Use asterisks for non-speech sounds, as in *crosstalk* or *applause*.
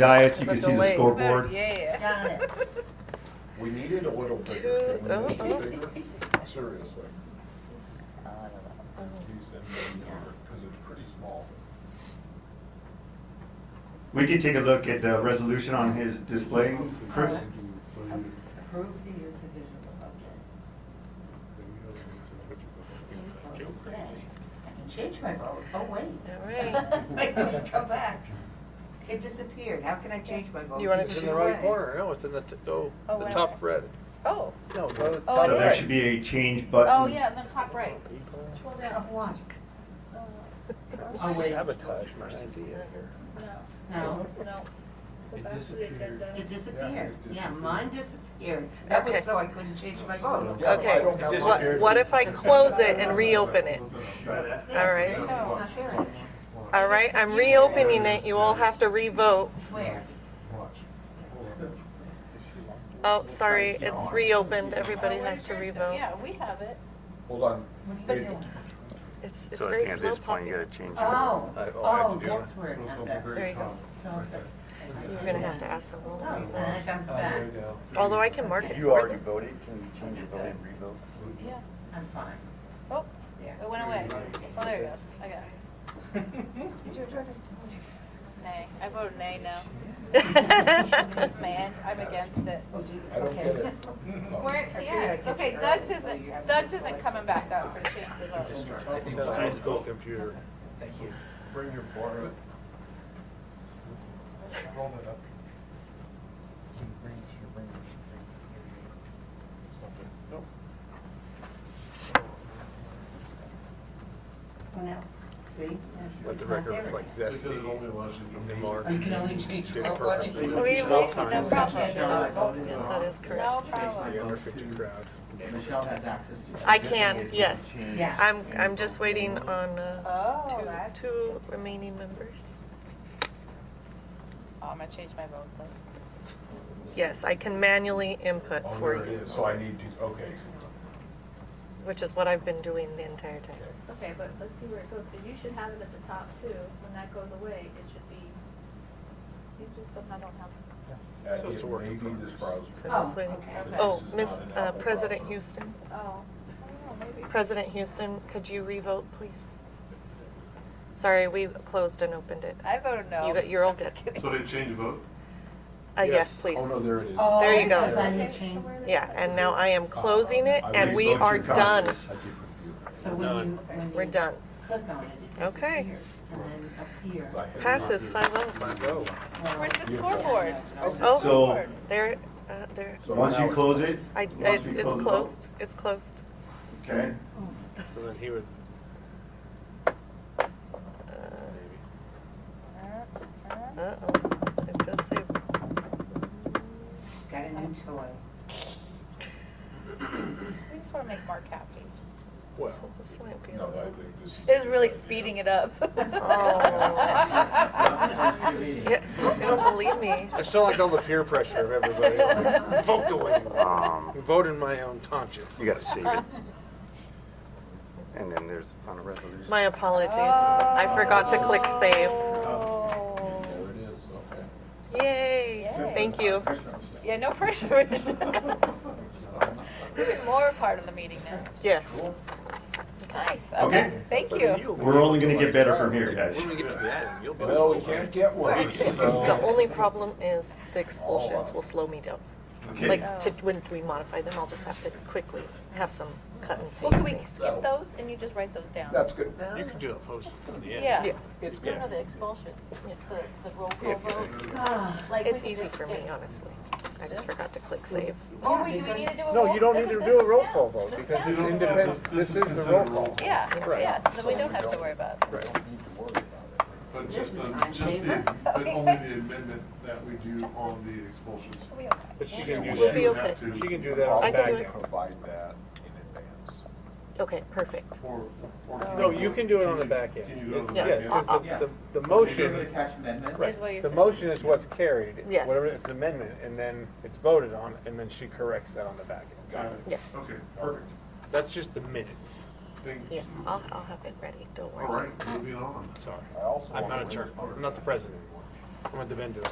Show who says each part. Speaker 1: Diets, you can
Speaker 2: It's a
Speaker 1: see the
Speaker 2: delay.
Speaker 1: scoreboard.
Speaker 3: Yeah.
Speaker 4: Got it.
Speaker 5: We need it a little bigger. Can we make
Speaker 2: uh-huh.
Speaker 5: it bigger? Seriously.
Speaker 4: Oh, I don't know.
Speaker 5: Because it's pretty small.
Speaker 1: We can take a look at the resolution on his display, Chris.
Speaker 2: Oh,
Speaker 4: Approve the use of digital, okay. Okay. I can change my vote. Oh, wait. *laughs*
Speaker 2: All right.
Speaker 4: Wait, wait, come back. It disappeared. How can I change my vote?
Speaker 2: You want it
Speaker 4: It
Speaker 6: Oh, It's
Speaker 2: to
Speaker 6: in
Speaker 4: took
Speaker 6: the
Speaker 4: it
Speaker 6: right
Speaker 4: away.
Speaker 6: corner, no, it's in the, t- oh,
Speaker 3: Oh,
Speaker 6: the
Speaker 3: wait.
Speaker 6: top red.
Speaker 3: Oh,
Speaker 6: No, go to the
Speaker 3: Oh,
Speaker 6: top
Speaker 1: So there
Speaker 3: is.
Speaker 1: should be a change
Speaker 3: oh,
Speaker 1: button.
Speaker 3: yeah, in the top right.
Speaker 6: People
Speaker 3: Scroll down.
Speaker 4: Of what? Oh, wait.
Speaker 6: Sabotage my idea here.
Speaker 3: No,
Speaker 4: No,
Speaker 3: no. Go back to the agenda.
Speaker 4: it disappeared.
Speaker 5: it
Speaker 4: Yeah, mine disappeared. That
Speaker 2: Okay.
Speaker 4: was so I couldn't change my vote.
Speaker 5: Yeah, I
Speaker 2: Okay,
Speaker 5: don't have
Speaker 2: What-
Speaker 5: mine.
Speaker 2: what if I close it and reopen it?
Speaker 1: Try that.
Speaker 2: All right.
Speaker 4: It's not there anymore.
Speaker 2: All right, I'm reopening it, you all have to re-vote.
Speaker 4: Where?
Speaker 2: Oh, sorry, it's reopened, everybody has to re-vote.
Speaker 3: Oh, Yeah, we have it.
Speaker 5: Hold on.
Speaker 4: What do you
Speaker 5: It-
Speaker 4: think?
Speaker 2: It's, it's
Speaker 7: So I think
Speaker 2: very
Speaker 7: at
Speaker 2: slow
Speaker 7: this point, you
Speaker 2: popping.
Speaker 7: gotta change your,
Speaker 4: Oh,
Speaker 6: I- oh, I have to
Speaker 4: oh,
Speaker 6: do
Speaker 4: that's
Speaker 6: it.
Speaker 4: where it comes up.
Speaker 2: There you go.
Speaker 4: So, if it-
Speaker 2: You're gonna have to ask the whole
Speaker 4: oh,
Speaker 2: lot.
Speaker 4: and then it comes back.
Speaker 2: Although I can mark it
Speaker 7: you
Speaker 2: for
Speaker 7: already
Speaker 2: them. *laughs*
Speaker 7: voted, can you change your vote and revote?
Speaker 3: Yeah.
Speaker 4: I'm fine.
Speaker 3: Oh,
Speaker 4: There.
Speaker 3: it went away. Oh, there it goes. I got it.
Speaker 4: It's your turn.
Speaker 3: Nay. I voted nay
Speaker 2: *laughs*
Speaker 3: now. Man, I'm against it.
Speaker 4: Oh, do you-
Speaker 5: I don't
Speaker 4: okay. *laughs*
Speaker 5: get it.
Speaker 3: Where,
Speaker 4: I
Speaker 3: yeah,
Speaker 4: figured I'd
Speaker 3: okay,
Speaker 4: get
Speaker 3: Doug's
Speaker 4: there early, so you
Speaker 3: isn't,
Speaker 4: have
Speaker 3: Doug's
Speaker 4: to
Speaker 3: isn't
Speaker 4: select.
Speaker 3: coming back up for change the vote.
Speaker 6: I think that's
Speaker 1: High
Speaker 6: high
Speaker 1: school.
Speaker 6: school computer.
Speaker 5: Bring your board. Roll it up. Nope.
Speaker 4: No, see?
Speaker 6: Let the
Speaker 4: It's not
Speaker 6: record
Speaker 4: there.
Speaker 6: reflect zesty.
Speaker 4: You can only change
Speaker 6: Did
Speaker 4: your
Speaker 6: it
Speaker 4: vote.
Speaker 6: perfectly.
Speaker 4: if you-
Speaker 3: We, we, no problem.
Speaker 2: Yes, that is
Speaker 3: No
Speaker 2: correct.
Speaker 3: problem.
Speaker 6: The under fifty crowd.
Speaker 8: Michelle has access to it.
Speaker 2: I can, yes.
Speaker 4: Yeah.
Speaker 2: I'm, I'm just waiting on, uh,
Speaker 3: Oh,
Speaker 2: two,
Speaker 3: that's,
Speaker 2: two remaining members.
Speaker 3: oh, I'm gonna change my vote, please.
Speaker 2: Yes, I can manually input
Speaker 5: Oh,
Speaker 2: for
Speaker 5: there it
Speaker 2: you,
Speaker 5: is. So I need to, okay.
Speaker 2: which is what I've been doing the entire time.
Speaker 9: Okay, but let's see where it goes, because you should have it at the top too. When that goes away, it should be, you just somehow don't have this.
Speaker 5: Uh,
Speaker 6: So it's
Speaker 5: it
Speaker 6: a work in
Speaker 5: may be this browser.
Speaker 2: So I'm just
Speaker 4: Oh,
Speaker 2: waiting.
Speaker 4: okay.
Speaker 2: Oh,
Speaker 5: This is
Speaker 2: Miss,
Speaker 5: not an
Speaker 2: uh,
Speaker 5: Apple
Speaker 2: President
Speaker 5: product.
Speaker 2: Houston,
Speaker 3: Oh, I don't know, maybe.
Speaker 2: President Houston, could you revote, please? Sorry, we closed and opened it. Uh,
Speaker 3: I voted no.
Speaker 2: You got- You're all
Speaker 3: *laughs* I'm just
Speaker 2: good.
Speaker 3: kidding.
Speaker 1: So did change the vote?
Speaker 2: Uh, yes,
Speaker 6: Yes.
Speaker 2: please.
Speaker 5: Oh, no, there it is.
Speaker 4: Oh,
Speaker 2: There you go.
Speaker 4: Because I need change,
Speaker 2: Yeah, and now I am closing it
Speaker 5: I
Speaker 2: and
Speaker 5: raised
Speaker 2: we
Speaker 5: those two
Speaker 2: are done.
Speaker 5: copies. I did review it.
Speaker 4: so when you, when you.
Speaker 2: We're done.
Speaker 4: Click on it, it
Speaker 2: Okay.
Speaker 4: disappears, and then up here.
Speaker 5: So I had-
Speaker 2: Passes five oh.
Speaker 6: Oh,
Speaker 4: well,
Speaker 3: Where's the
Speaker 5: Beautiful.
Speaker 3: scoreboard?
Speaker 2: Oh.
Speaker 1: So,
Speaker 2: There, uh, there,
Speaker 5: So
Speaker 1: once
Speaker 5: now
Speaker 1: you
Speaker 5: it's-
Speaker 1: close it,
Speaker 2: I,
Speaker 1: Must
Speaker 2: it's
Speaker 1: be
Speaker 2: it's
Speaker 1: closed.
Speaker 2: closed, it's closed.
Speaker 1: okay,
Speaker 6: so then he would,
Speaker 2: Uh,
Speaker 6: maybe.
Speaker 3: Uh-huh.
Speaker 2: Uh-oh, it does say,
Speaker 4: Got a new toy.
Speaker 3: We just wanna make Mark happy.
Speaker 6: Well,
Speaker 2: so this might be a
Speaker 5: No, I
Speaker 2: little.
Speaker 5: think this is.
Speaker 3: It is really speeding it up.
Speaker 2: Oh.
Speaker 3: *laughs*
Speaker 2: *laughs*
Speaker 4: *laughs*
Speaker 2: Yeah, you don't believe me.
Speaker 6: it's not like all the peer pressure of everybody, like, vote the way you want.
Speaker 7: Um,
Speaker 6: Vote in my own conscience.
Speaker 7: you gotta save it. And then there's the final resolution.
Speaker 2: My apologies, I forgot to click save.
Speaker 3: Oh.
Speaker 5: There it is, okay.
Speaker 2: Yay,
Speaker 3: Yay.
Speaker 2: thank you.
Speaker 3: Yeah, no pressure. *laughs* Even more part of the meeting now.
Speaker 2: Yes,
Speaker 3: Nice,
Speaker 1: Okay.
Speaker 3: okay, thank you.
Speaker 1: we're only gonna get better from here, guys.
Speaker 6: When we get to the end, you'll be.
Speaker 5: Well, we can't get
Speaker 2: *laughs*
Speaker 5: one,
Speaker 2: the
Speaker 5: so.
Speaker 2: only problem is the expulsions will slow me down.
Speaker 1: Okay,
Speaker 2: Like, to, when we modify them, I'll just have to quickly have some cut and
Speaker 3: Well,
Speaker 2: paste
Speaker 3: can we
Speaker 2: things.
Speaker 3: skip those and you just write those down?
Speaker 5: That's good.
Speaker 6: You can do that post at the end.
Speaker 3: Yeah.
Speaker 2: Yeah.
Speaker 6: It's
Speaker 3: No,
Speaker 6: good.
Speaker 3: no, the expulsions,
Speaker 2: Yeah.
Speaker 3: the, the roll call vote.
Speaker 4: Ah,
Speaker 3: Like, we
Speaker 2: It's
Speaker 3: could
Speaker 2: easy
Speaker 3: just
Speaker 2: for me,
Speaker 3: skip-
Speaker 2: honestly. I just forgot to click save.
Speaker 3: Oh, we, do we need to do a roll?
Speaker 6: No, you don't need
Speaker 3: doesn't
Speaker 6: to do a
Speaker 3: this
Speaker 6: roll
Speaker 3: count?
Speaker 6: call vote,
Speaker 3: This
Speaker 6: because
Speaker 3: counts?
Speaker 6: it's independent,
Speaker 1: This
Speaker 6: this
Speaker 1: is
Speaker 6: is the
Speaker 1: considered
Speaker 6: roll
Speaker 1: a roll
Speaker 6: call.
Speaker 3: Yeah,
Speaker 6: Right.
Speaker 3: yeah, so we don't have to worry about it.
Speaker 5: We don't need to worry about it.
Speaker 10: But
Speaker 4: This
Speaker 10: just
Speaker 4: is
Speaker 10: the,
Speaker 4: time
Speaker 10: just the,
Speaker 4: saver.
Speaker 10: but only the amendment that we do on the expulsions.
Speaker 3: *laughs* We okay.
Speaker 6: But she
Speaker 5: can
Speaker 6: can
Speaker 5: do
Speaker 6: do
Speaker 2: We'll
Speaker 5: We'll
Speaker 2: be
Speaker 6: that,
Speaker 10: You
Speaker 2: okay.
Speaker 10: have
Speaker 6: she
Speaker 10: to,
Speaker 6: can do that on
Speaker 2: I can do
Speaker 6: back
Speaker 2: it.
Speaker 6: now.
Speaker 5: Provide that in advance.
Speaker 2: Okay, perfect.
Speaker 10: or, or.
Speaker 2: Oh.
Speaker 1: Oh,
Speaker 6: No, you can do it on the back
Speaker 10: Can
Speaker 6: end.
Speaker 10: you do it
Speaker 6: It's,
Speaker 10: on the
Speaker 6: yeah,
Speaker 10: back end?
Speaker 6: because the, the, the motion,
Speaker 8: Attach amendments.
Speaker 3: Is what
Speaker 6: right,
Speaker 3: you're
Speaker 6: the
Speaker 3: saying.
Speaker 6: motion is what's carried.
Speaker 2: Yes.
Speaker 6: Whatever, it's an amendment, and then it's voted on, and then she corrects that on the back end.
Speaker 10: Got
Speaker 2: Yeah.
Speaker 10: it. Okay, perfect.
Speaker 6: That's just the minutes,
Speaker 10: Thank
Speaker 2: Yeah,
Speaker 10: you.
Speaker 2: I'll, I'll have it ready, don't
Speaker 10: All
Speaker 2: worry.
Speaker 10: right, moving on.
Speaker 6: sorry.
Speaker 5: I also
Speaker 6: I'm
Speaker 5: want
Speaker 6: not a
Speaker 5: to
Speaker 6: chair,
Speaker 5: remember-
Speaker 6: I'm not the president anymore. I'm at the vendor.